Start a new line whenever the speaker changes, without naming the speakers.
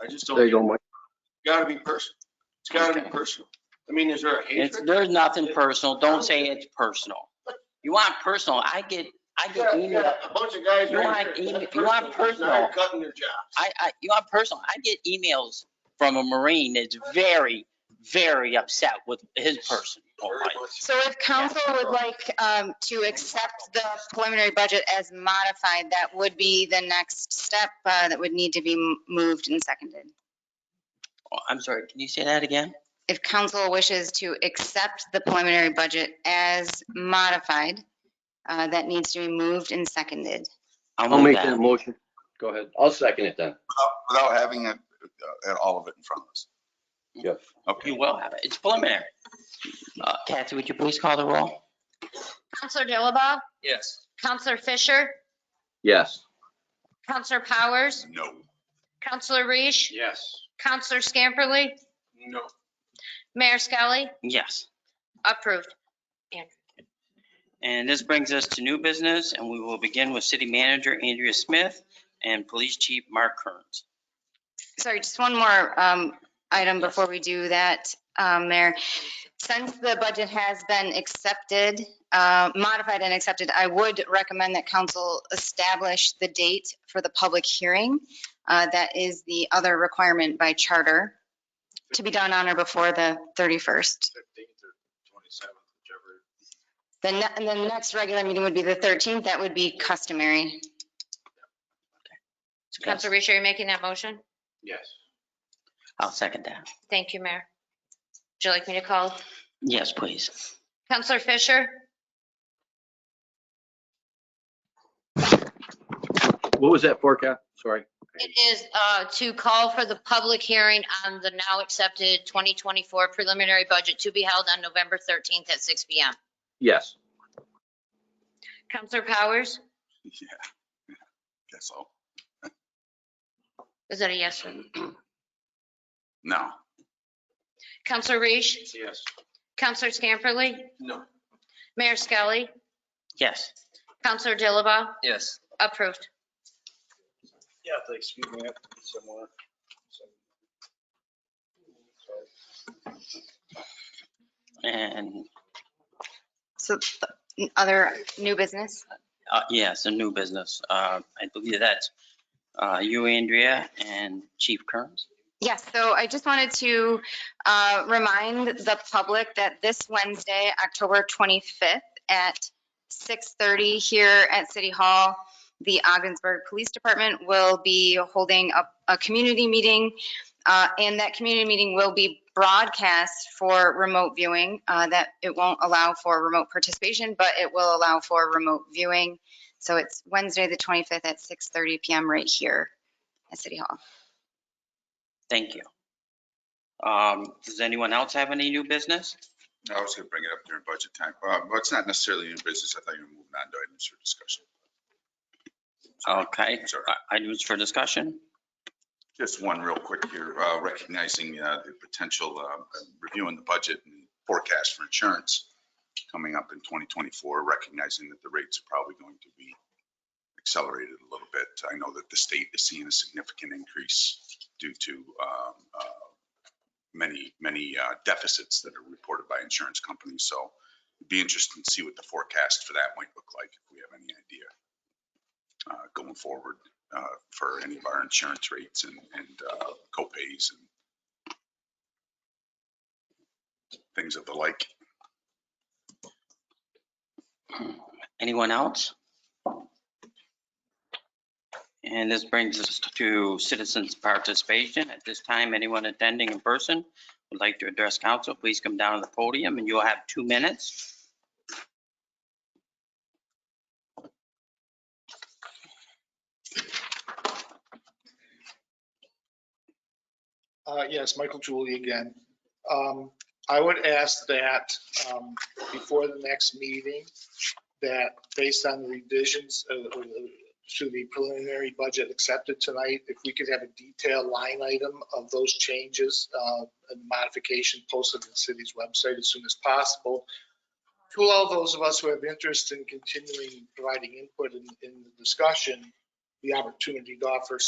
I just
There you
don't,
go, Mike.
gotta be personal. It's gotta be personal. I mean, is there a
It's,
hatred?
there's nothing personal. Don't say it's personal. You want personal, I get, I
You got-
get
you got
email,
A bunch of guys
You
right
want
here.
email- you want
Personal,
personal.
Cutting their jobs.
I, I, you want personal, I get emails from a Marine that's very, very upset with his person. Oh,
Very
Right.
much.
So if council would like um, to accept the preliminary budget as modified, that would be the next step uh, that would need to be m- moved and seconded.
Oh, I'm sorry, can you say that again?
If council wishes to accept the preliminary budget as modified, uh, that needs to be moved and seconded.
I'll make that motion. Go ahead.
I'll second it then.
without having it, uh, all of it in front of us.
Yes.
You will have it. It's preliminary. Uh, Kathy, would you please call the roll?
Counselor Dilaba?
Yes.
Counselor Fisher?
Yes.
Counselor Powers?
No.
Counselor Reish?
Yes.
Counselor Scamperly?
No.
Mayor Skelly?
Yes.
Approved.
And this brings us to new business, and we will begin with City Manager Andrea Smith and Police Chief Mark Kearns.
Sorry, just one more um, item before we do that, um, Mayor. Since the budget has been accepted, uh, modified and accepted, I would recommend that council establish the date for the public hearing. Uh, That is the other requirement by charter to be done on or before the 31st.
Fifteenth or twenty-seventh, whichever.
The ne- and the next regular meeting would be the 13th. That would be customary.
Counselor Reish, are you making that motion?
Yes.
I'll second that.
Thank you, Mayor. Would you like me to call?
Yes, please.
Counselor Fisher?
What was that for, Kat? Sorry.
It is uh, to call for the public hearing on the now accepted 2024 preliminary budget to be held on November 13th at 6 PM.
Yes.
Counselor Powers?
Yeah, yeah, guess so.
Is that a yes?
No.
Counselor Reish?
Yes.
Counselor Scamperly?
No.
Mayor Skelly?
Yes.
Counselor Dilaba?
Yes.
Approved.
Yeah, thanks. Excuse me, I have to be somewhere. So- so-
And,
So th- other new business?
uh, yes, a new business. Uh, I believe that's uh, you, Andrea, and Chief Kearns.
Yes, so I just wanted to uh, remind the public that this Wednesday, October 25th at 6:30 here at City Hall, the Ogdensburg Police Department will be holding a, a community meeting. uh, And that community meeting will be broadcast for remote viewing, uh, that it won't allow for remote participation, but it will allow for remote viewing. So it's Wednesday, the 25th at 6:30 PM right here at City Hall.
Thank you. Um, Does anyone else have any new business?
I was gonna bring it up during budget time. Uh, Well, it's not necessarily new business. I thought you were moving on to items for discussion.
Okay,
Sorry.
I- items for discussion?
Just one real quick here, uh, recognizing uh, the potential, uh, reviewing the budget and forecast for insurance coming up in 2024, recognizing that the rates are probably going to be accelerated a little bit. I know that the state is seeing a significant increase due to um, uh, many, many uh, deficits that are reported by insurance companies. So it'd be interesting to see what the forecast for that might look like, if we have any idea uh, going forward uh, for any of our insurance rates and, and uh, co-pays and things of the like.
Anyone else? And this brings us to citizens' participation. At this time, anyone attending in person would like to address council, please come down to the podium and you'll have two minutes.
Uh, Yes, Michael Julie again. Um, I would ask that um, before the next meeting, that based on the revisions of- of- to the preliminary budget accepted tonight, if we could have a detailed line item of those changes uh, and modification posted on the city's website as soon as possible, to allow those of us who have interest in continuing providing input in in the discussion, the opportunity to offer